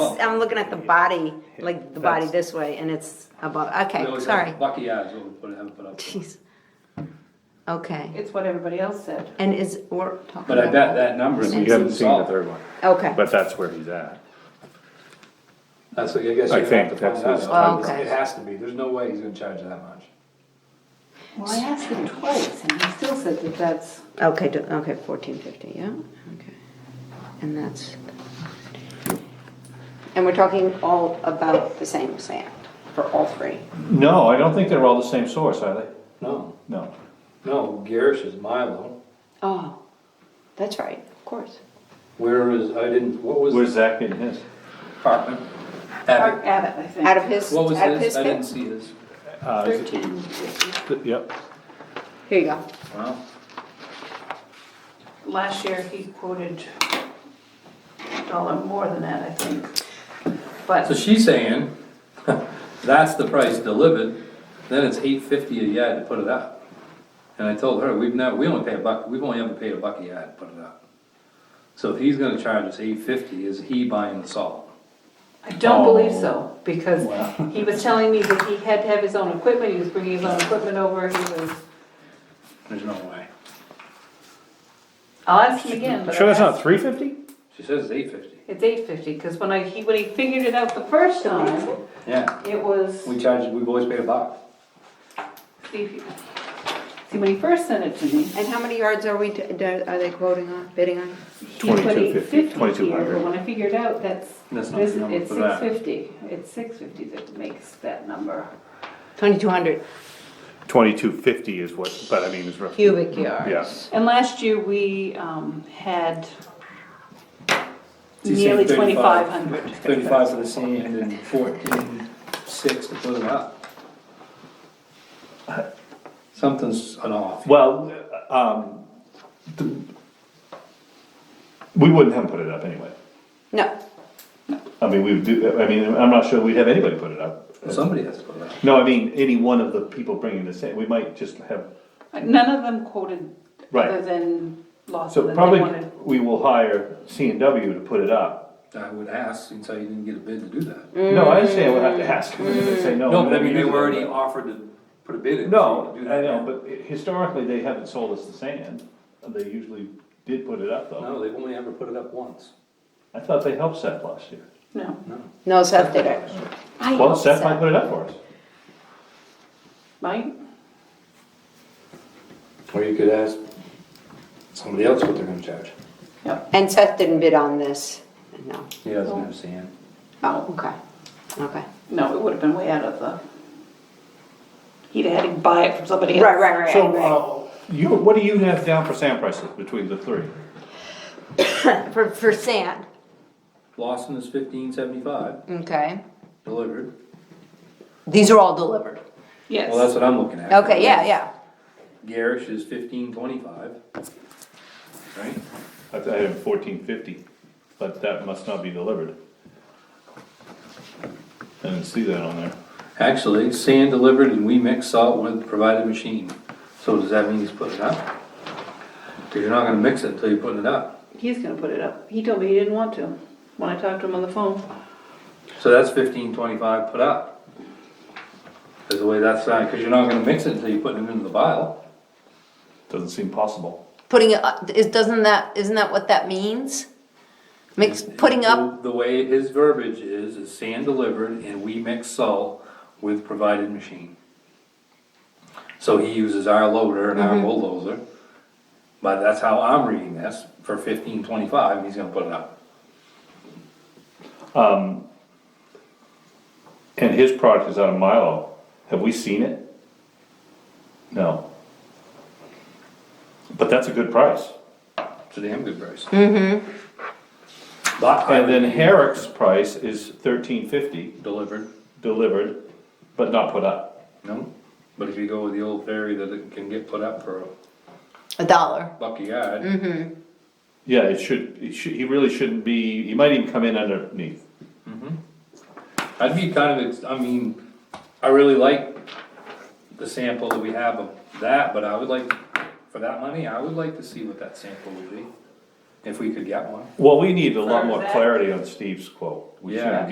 I'm looking at the body, like the body this way, and it's above, okay, We always have sorry. Bucky eyes, what we put, have put up. Jeez. Okay, It's what everybody else said. and is, we're talking about. But I bet that number is. You haven't seen the third one, Okay, but that's where he's at. That's, what I guess I you have to think find that's his out. time. It has to be, there's no way he's gonna charge you that much. Well, I asked him twice and he still said that that's, okay, do- okay, fourteen fifty, yeah, okay. And that's. And we're talking all about the same sand for all three. No, I don't think they're all the same source, are they? No, No. no, Garrish is Milo, Oh, that's right, of course. where is, I didn't, what was Where's Zach getting his? Parkman? Mark Abbott. Abbott, I think. Out of his, What was out of his his, I didn't pit? see his. Uh, is it- Thirteen. th- Yep, Here you go. Wow. Last year, he quoted a dollar more than that, I think. So But she's saying, that's the price delivered, then it's eight fifty a yard to put it up. And I told her, we've not, we only pay a buck, we've only ever paid a buck a yard to put it up. So if he's gonna charge us eight fifty, is he buying the salt? I don't Oh. believe so, because he was telling me that he had to have his own equipment, he was bringing his own equipment over, he was, There's no way. I'll ask him again, but. sure that's I'll not ask- three fifty? She says it's eight fifty. It's eight fifty, because when I, he, when he figured it out the first time, Yeah, it was. we charge, we've always paid a buck. See, if you- see, when he first sent it to me, And how many yards are we, do- do- are they quoting on, bidding on? he put 22.50, eight fifty here, 22.00. but when I figured out that's, That's not this, the number it's for six that. fifty, it's six fifty that makes that number. Twenty-two hundred Twenty-two fifty is what, but I mean, it's roughly. cubic yards. And last year, we, um, had She's saying nearly 35 twenty-five hundred. Thirty-five for the sand and fourteen, six to put it up. Something's an off. Well, um, th- we wouldn't have put it up anyway. No, I mean, we would do, I mean, I'm not sure we'd have anybody put it up. Somebody has to put it up. No, I mean, any one of the people bringing this in, we might just have, None of them quoted Right. other than Lawson, so that they probably wanted. we will hire C and W to put it up. I would ask, since I didn't get a bid to do that. No, I understand, we'll have to ask them, if they say no. No, we're but I gonna mean, they do were that, already but- offered to put a bid in. No, so you could do I that. know, but i- historically, they haven't sold us the sand, they usually did put it up though. No, they've only ever put it up once. I thought they helped Seth last year. No. no, Seth did it. I Well, hope Seth so. might put it up for us. Mike? Or you could ask somebody else what they're gonna charge. And Seth didn't bid on this, no. He doesn't have sand. Oh, okay, okay. No, it would have been way out of the. He'd have had to buy it from somebody else. Right, right, right. So, uh, you, what do you have down for sand prices between the three? For, for sand, Lawson is fifteen seventy-five okay. delivered. These are all delivered. Yes. Well, that's what I'm looking at. Okay, yeah, yeah. Garrish is fifteen twenty-five. Right? I I had fourteen fifty, but that must not be delivered. I didn't see that on there. Actually, sand delivered and we mix salt with provided machine. So does that mean he's putting it up? Cause you're not gonna mix it until you're putting it up. He's gonna put it up. He told me he didn't want to when I talked to him on the phone. So that's fifteen twenty-five put up. Is the way that's done, cause you're not gonna mix it until you're putting it into the vial. Doesn't seem possible. Putting it, up- is, doesn't that, isn't that what that means? Mix, putting up, The way his verbiage is, is sand delivered and we mix salt with provided machine. So he uses our loader and our Mm-hmm. bulldozer. But that's how I'm reading this, for fifteen twenty-five, he's gonna put it up. And his product is out of Milo. Have we seen it? No. But that's a good price. It's a damn good price. Mm-hmm. Mm-hmm. But I And then then Herrick's price is thirteen fifty delivered, delivered, but not put up. no, but if you go with the old ferry that it can get put up for a a dollar. buck a yard, Yeah, it should, it should, he really shouldn't be, he might even come in underneath. I'd be kind of, ex- I mean, I really like the sample that we have of that, but I would like, for that money, I would like to see what that sample would be. If we could get one. Well, we need a lot For more that- clarity on Steve's quote. We Yeah. shouldn't